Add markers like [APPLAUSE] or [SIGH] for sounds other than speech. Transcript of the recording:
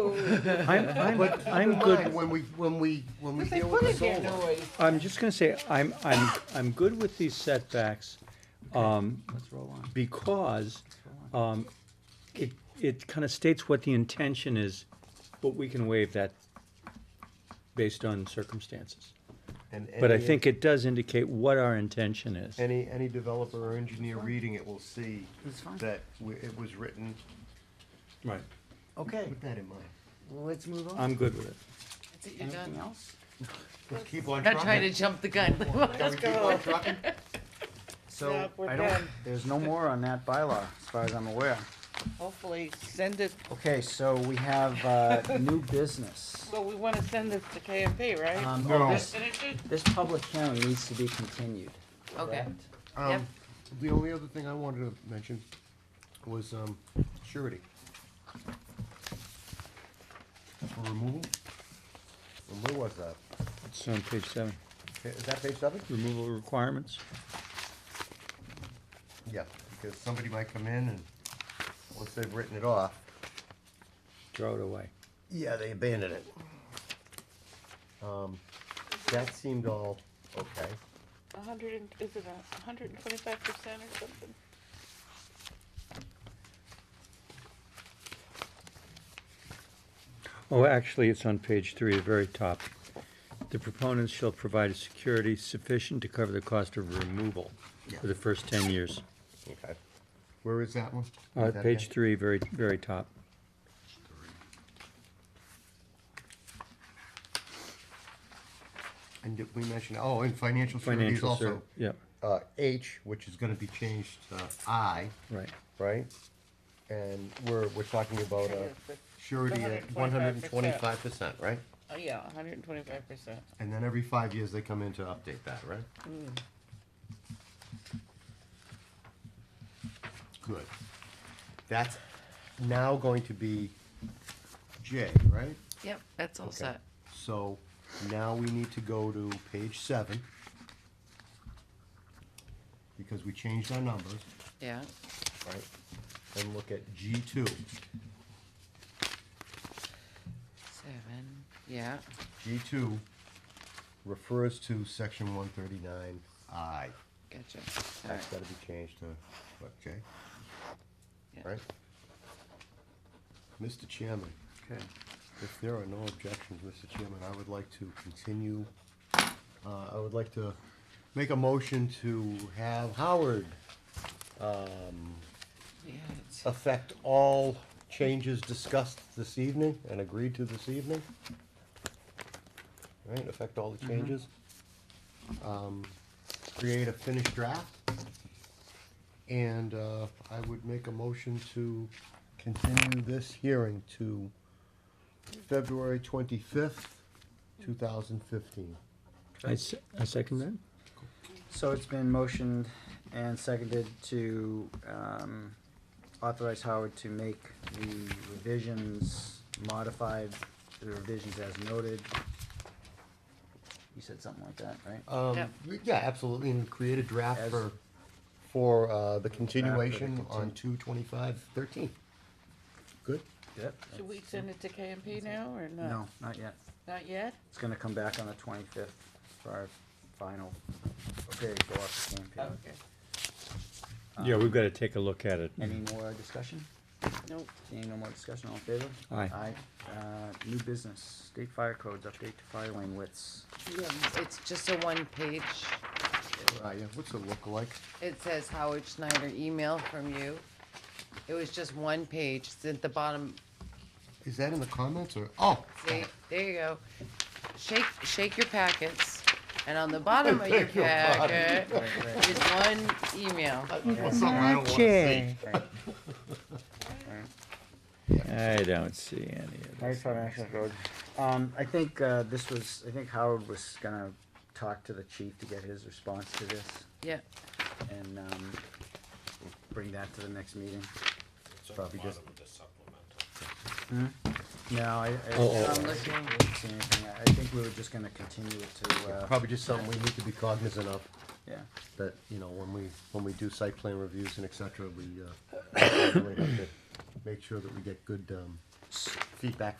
I'm, I'm, I'm But keep in mind, good, When we, when we, when we But they deal put with it the there, solar. noise. I'm just gonna say, I'm, I'm, I'm good with these setbacks, um, Let's roll on. because, um, it, it kinda states what the intention is, but we can waive that based on circumstances. and But I any- think it does indicate what our intention is. Any, any developer or engineer reading it will see It's fine. that we- it was written, Right. Okay, keep that in mind. well, let's move on. I'm good with it. You're done. Anything else? Let's keep on Not trying to trucking. jump the gun. [LAUGHS] Can we keep on trucking? So, Yep, we're I don't, done. there's no more on that bylaw, as far as I'm aware. Hopefully, send it, Okay, so we have, [LAUGHS] uh, new business. well, we wanna send this to KMP, right? Um, oh, No. this, this public hearing needs to be continued. Okay. correct? Um, Yep. The only other thing I wanted to mention was, um, surety. For removal? And Where was that? It's on page seven, Is that page seven? removal requirements. Yeah, because somebody might come in and, once they've written it off, Throw it away. yeah, they abandon it. Um, that seemed all okay. A hundred and, is it a hundred and twenty-five percent or something? Oh, actually, it's on page three, the very top. The proponents shall provide a security sufficient to cover the cost of removal for the first ten years. Okay. Where is that one? Uh, Is that page again? three, very, very top. And did we mention, oh, and financial securities Financial also. ser, yeah, Uh, H, which is gonna be changed to I, right. right? And we're, we're talking about a surety at one hundred and 125%. twenty-five percent, right? Oh, yeah, a hundred and twenty-five percent. And then every five years, they come in to update that, right? Good. That's now going to be J, right? Yep, that's all Okay. set. So now we need to go to page seven. Because we changed our numbers, Yeah, right? And look at G two. seven, yeah, G two refers to section one thirty-nine I. gotcha. All right, That's gotta be changed to, what, J, yeah. right? Mr. Chairman, Okay. if there are no objections, Mr. Chairman, I would like to continue. Uh, I would like to make a motion to have Howard Yeah, it's- affect all changes discussed this evening and agreed to this evening? Right, affect all the changes? Um, Create a finished draft? And uh, I would make a motion to continue this hearing to February twenty-fifth, two thousand fifteen. I, s- I second that. So it's been motioned and seconded to, um, authorize Howard to make the revisions modified, the revisions as noted. You said something like that, right? Um, Yep. yeah, absolutely, and create a draft As- for, for uh, the continuation on continu- two twenty-five thirteen. Good? Yep. Should we send uh, it to KMP now or not? No, not yet. Not yet? It's gonna come back on the twenty-fifth for our final, okay, go off the Oh, campaign. Okay, Yeah, we've gotta take a look at it. Any more discussion? nope. Seeing no more discussion, all in favor? Aye. Aye. Uh, new business, state fire codes, update to fire lane widths. Yeah, it's just a one-page, Uh, yeah, what's it look like? it says Howard Schneider email from you. It was just one page, it's at the bottom, Is that in the comments or, oh, See, there you go. Shake, shake your packets, and on the bottom of your [LAUGHS] Shake your body. packet is one email. well, something I don't wanna see. I don't see any of Fire this. department access road. Um, I think, uh, this was, I think Howard was gonna talk to the chief to get his response to this Yeah, and, um, bring that to the next meeting. Probably just, Hmm? No, I, Oh, I, I'm looking, see anything. I I think we were just gonna continue it to, uh, probably just something we need to be cognizant of, yeah. that, you know, when we, when we do site plan reviews and et [COUGHS] cetera, we, uh, we have to make sure that we get good, um, feedback